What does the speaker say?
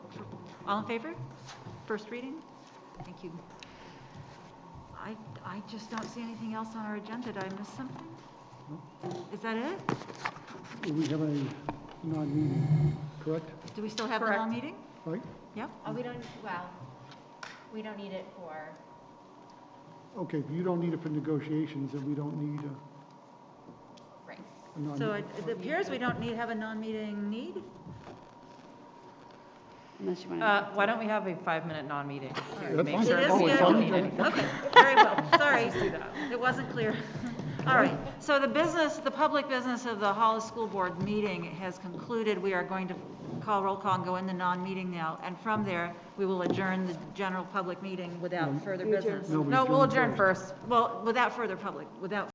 All in favor? First reading? Thank you. I, I just don't see anything else on our agenda. Did I miss something? Is that it? We have a non-meeting, correct? Do we still have the long meeting? Right? Yep. Oh, we don't, well, we don't need it for, Okay, if you don't need it for negotiations, then we don't need a, right. a non-meeting. So it it appears we don't need, have a non-meeting need? Unless you want to, Uh, Why don't we have a five-minute non-meeting to That's make fine. sure It is that we good. don't need anything? Okay, very well, sorry. It wasn't clear. All right, so the business, the public business of the Hollis School Board meeting has concluded. We are going to call roll call and go in the non-meeting now, and from there, we will adjourn the general public meeting without further business. No, we No, we'll adjourn adjourn first. Well, without further public, without